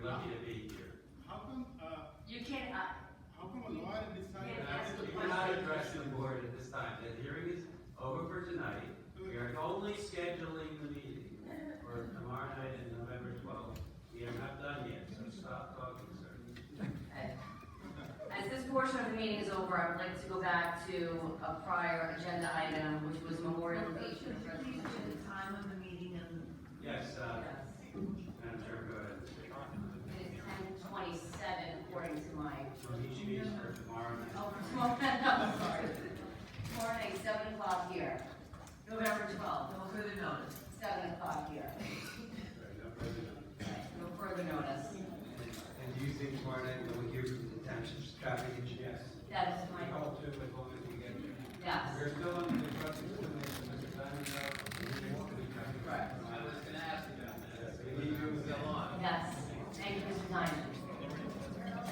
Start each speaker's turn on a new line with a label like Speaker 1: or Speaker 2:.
Speaker 1: You can, uh,
Speaker 2: How come a lawyer decided?
Speaker 1: Yeah,
Speaker 2: that?
Speaker 1: that's the
Speaker 3: We're not addressing the board at this time, the hearing is over for tonight, we are only scheduling the meeting for tomorrow night and November twelfth. We are not done yet, so stop talking, sir.
Speaker 1: uh, as this portion of the meeting is over, I would like to go back to a prior agenda item, which was memorialization of
Speaker 4: Please do
Speaker 1: resolutions.
Speaker 4: the time of the meeting and.
Speaker 3: Yes, uh,
Speaker 1: Yes.
Speaker 3: Madam Chair, go ahead.
Speaker 1: It is ten twenty-seven according to my
Speaker 3: So each meeting is for tomorrow night.
Speaker 1: Oh, tomorrow, I'm sorry. Tomorrow night, seven o'clock here. November twelfth,
Speaker 4: No further notice.
Speaker 1: seven o'clock here.
Speaker 3: Sorry, no further notice.
Speaker 1: No further notice.
Speaker 5: And do you think tomorrow night we'll hear from the township's traffic engineer?
Speaker 3: Yes.
Speaker 1: That is
Speaker 3: We
Speaker 1: my,
Speaker 3: all do, but only if we get there.
Speaker 1: yes.
Speaker 3: We're still on the trustee explanation, Mr. Diamond. Right. I was gonna ask you about that. We need you to go on.
Speaker 1: Yes, thank you, Mr. Diamond.